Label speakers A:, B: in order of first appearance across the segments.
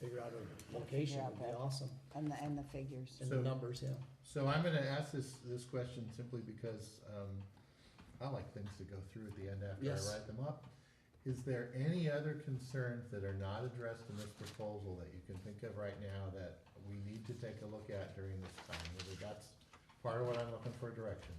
A: figure out a location would be
B: Yeah, okay.
A: awesome,
B: And the, and the figures.
A: and the
C: So-
A: numbers, yeah.
C: So I'm gonna ask this, this question simply because, um, I like things to go through at the end after
A: Yes.
C: I write them up. Is there any other concerns that are not addressed in this proposal that you can think of right now that we need to take a look at during this time? Whether that's part of what I'm looking for direction.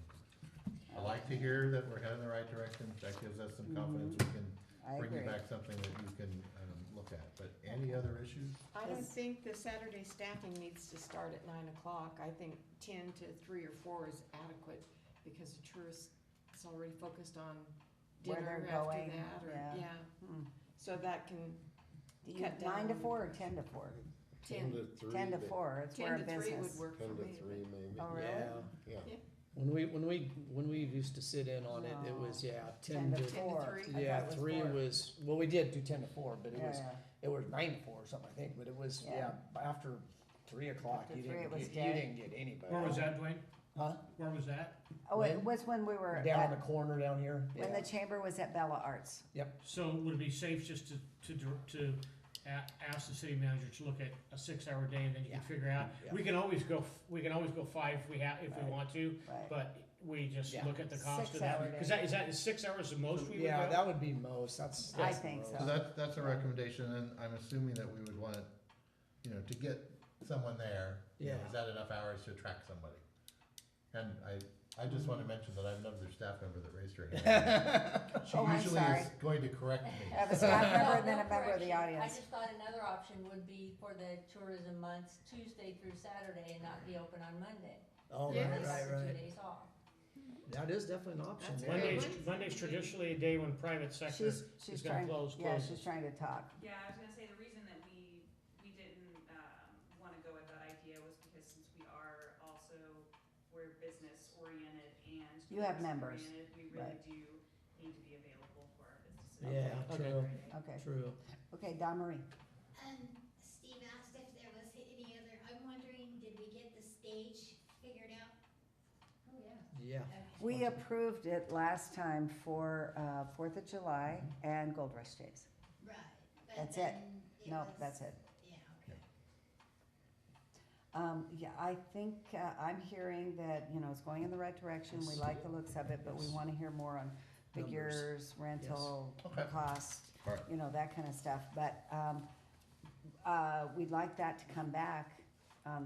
C: I like to hear that we're heading in the right direction, that gives us some confidence we can
B: Mm-hmm. I
C: bring you
B: agree.
C: back something that you can, um, look at, but any other issues?
D: I don't
B: Yes.
D: think the Saturday staffing needs to start at nine o'clock. I think ten to three or four is adequate because the tourist is already focused on
B: Where
D: dinner
B: they're
D: after
B: going,
D: that or,
B: yeah.
D: yeah.
B: Hmm.
D: So that can,
B: Do you,
D: Cut
B: nine to
D: down.
B: four or ten to four?
D: ten,
E: to three.
B: Ten to
E: may-
B: four, it's where
D: ten
B: a
D: to three would
B: business.
D: work for
E: Ten to
D: me.
E: three maybe.
B: Oh, really?
A: Yeah,
E: Yeah.
A: when we, when we, when we used to sit in on it, it
B: No.
A: was, yeah,
B: Oh. Ten
A: ten
B: to
A: to,
B: four.
D: three.
B: I thought
A: yeah,
B: it was
A: three
B: four.
A: was, well, we did do ten to four, but it
B: Yeah,
A: was,
B: yeah.
A: it was nine to four or something, I think, but it was, yeah,
B: Yeah.
A: after three o'clock,
B: After
A: you
B: three, it
A: didn't,
B: was
A: get- you
B: dead.
A: didn't get anybody.
F: Where was that, Dwayne?
A: Huh?
F: Where was that?
B: Oh, it
A: When-
B: was when we were,
A: Down on the
B: at-
A: corner down here,
B: when
A: yeah,
B: the chamber was at Bella Arts.
F: So would it be safe just to, to, dir- to a- ask the city manager to look at a six-hour day and then you
A: Yeah.
F: can figure out?
A: Yeah.
F: We can always go, f- we can always go five if we have, if we
B: Right.
F: want to,
B: Right.
F: but we just
A: Yeah.
F: look at the cost of
B: Six-hour
F: that.
B: day.
F: Cause that, is that, is six hours the most we would go?
A: yeah, that would be most, that's,
B: I
A: that's the
B: think so.
A: most.
C: So that's, that's a
B: Yeah.
C: recommendation, and I'm assuming that we would want, it, you know, to get someone there, you know,
A: Yeah.
C: is that enough hours to attract somebody? And I, I just wanna mention that I have another staff member that raised her hand. She
B: Oh, I'm
C: usually is
B: sorry.
C: going to correct
B: I
C: me.
B: have a staff member and
G: No,
B: then a
G: no
B: member of the
G: correction. I
B: audience.
G: just thought another option would be for the tourism months, Tuesday through Saturday, and not be open on Monday.
A: Oh,
D: Yeah.
A: right,
G: Give us
A: right,
G: the
A: right,
G: Two days off.
A: that is definitely an option,
D: That's a
A: yeah.
D: good
F: Monday's,
D: Good one.
F: Monday's traditionally a day when private sector,
B: She's, she's
F: is gonna
B: trying,
F: close,
B: yeah,
F: close.
B: she's trying to talk.
H: Yeah, I was gonna say, the reason that we, we didn't, um, wanna go with that idea was because since we are also, we're business oriented and.
B: You have
H: tourist
B: members,
H: oriented, We
B: right.
H: really do need to be available for our businesses.
A: Yeah,
F: Okay.
A: true,
B: Okay,
A: true.
B: okay, Don Marie.
I: Um, Steve asked if there was any other, I'm wondering, did we get the stage figured out?
G: Oh, yeah.
A: Yeah,
B: We approved it last time for, uh, Fourth of July and Gold Rush Days.
I: Right. but
B: That's it.
I: then it
B: No,
I: was-
B: that's it.
I: Yeah, okay.
B: Um, yeah, I think, uh, I'm hearing that, you know, it's going in the right direction, we like the looks of it, but we wanna hear more on
A: Numbers.
B: figures, rental,
C: Okay.
B: cost,
C: Alright.
B: you know, that kinda stuff, but, um, uh, we'd like that to come back on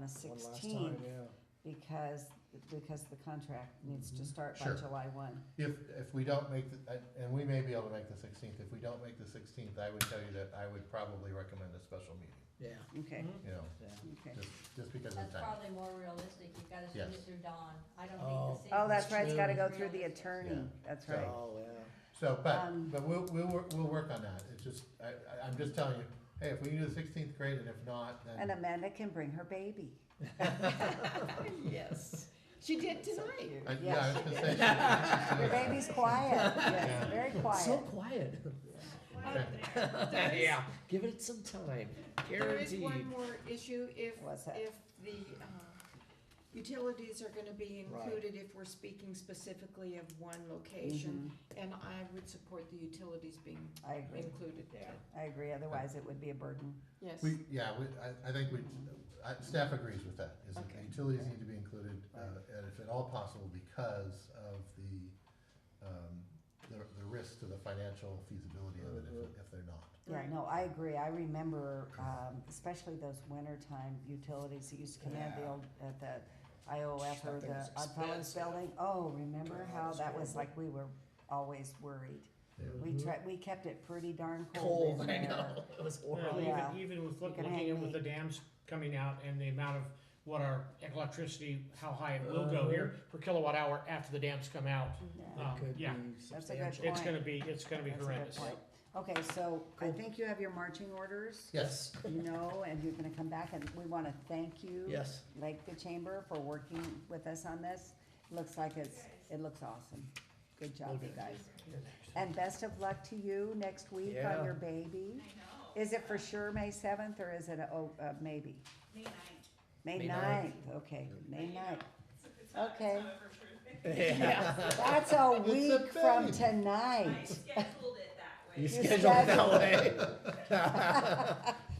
A: one
B: the
A: last time,
B: sixteenth,
A: yeah.
B: because, because the contract needs to
A: Mhm.
B: start by
C: Sure.
B: July one.
C: If, if we don't make, the I- and we may be able to make the sixteenth, if we don't make the sixteenth, I would tell you that I would probably recommend a special meeting,
A: Yeah,
B: Okay,
C: you know,
A: yeah.
B: okay.
C: just, just because of
G: That's
C: time.
G: probably more realistic, you've gotta swing
C: Yes.
G: it through dawn, I don't
A: Oh.
G: think the city.
B: Oh, that's right, it's gotta go
G: Realistic.
B: through the attorney,
C: Yeah.
B: that's
C: So-
B: right.
A: Oh, yeah.
C: So, but,
B: Um,
C: but we'll, we'll, wor- we'll work on that, it's just, I, I, I'm just telling you, hey, if we can do the sixteenth, great, and if not, then.
B: And Amanda can bring her baby.
D: Yes, she did tonight.
C: I,
B: Yes.
C: yeah, I was gonna say. she- she-
B: Your baby's quiet, yes,
C: Yeah.
B: very quiet.
A: So quiet.
H: Well, there-
A: yeah. Give it some time.
D: There is
A: Guaranteed.
D: one more issue if,
B: What's that?
D: if the, uh, utilities are gonna be
A: Right.
D: included if we're speaking specifically of one location. And I would support the utilities being
B: I agree.
D: included.
A: Yeah.
B: Mm-hmm. I agree, otherwise it would be a burden.
D: Yes.
C: We, yeah, we, I, I think we, I, staff agrees with that, is that the
D: Okay.
C: utilities need to be included, uh, and if at all possible, because of the, um, the, the risk to the financial feasibility of it if, if they're not.
B: Yeah,
D: Right.
B: no, I agree. I remember, um, especially those wintertime utilities that used to come in at the
A: Yeah.
B: old, at the IOF or
A: That thing
B: the
A: was
B: Odd Fellows
A: expensive.
B: Building. Oh, remember
A: God,
B: how
A: it's
B: that
A: horrible.
B: was
A: Mm-hmm.
B: like, we were always worried.
C: Yeah.
B: We tried, we kept it pretty darn cold
A: Cold,
B: in
A: I
B: there.
A: know. It was
F: Well,
A: horrible.
B: Yeah.
F: even, even with look-
B: can
F: looking
B: hang
F: at with
B: me.
F: the dams coming out and the amount of what our electricity, how high it will go here
A: Uh.
F: per kilowatt hour after the dams come out.
B: Yeah.
F: Um,
A: It could
F: yeah.
A: be
B: That's a
A: substantial.
B: good
F: It's gonna
B: point.
F: be, it's gonna be
B: That's a good
F: horrendous.
B: point. Okay, so I
A: Cool.
B: think you have your marching orders,
C: Yes,
B: you know, and you're gonna come back and we wanna thank you.
A: Yes.
B: Like the chamber for working with us on this. Looks like it's, it looks awesome. Good job, you guys. And best of luck to you next week
A: Yeah.
B: on your baby.
H: I know.
B: Is it for sure May seventh or is it, a- oh, uh, maybe?
H: May ninth.
B: May
A: May
B: ninth,
A: ninth.
B: okay,
H: but
B: May
H: you know,
B: ninth.
H: it's- it's not- it's
B: Okay.
H: not over for-
B: That's a
C: a
B: week from
C: baby.
H: I
B: tonight.
H: scheduled it that way.
A: You
B: You're
A: scheduled it that
B: scheduled.
A: way.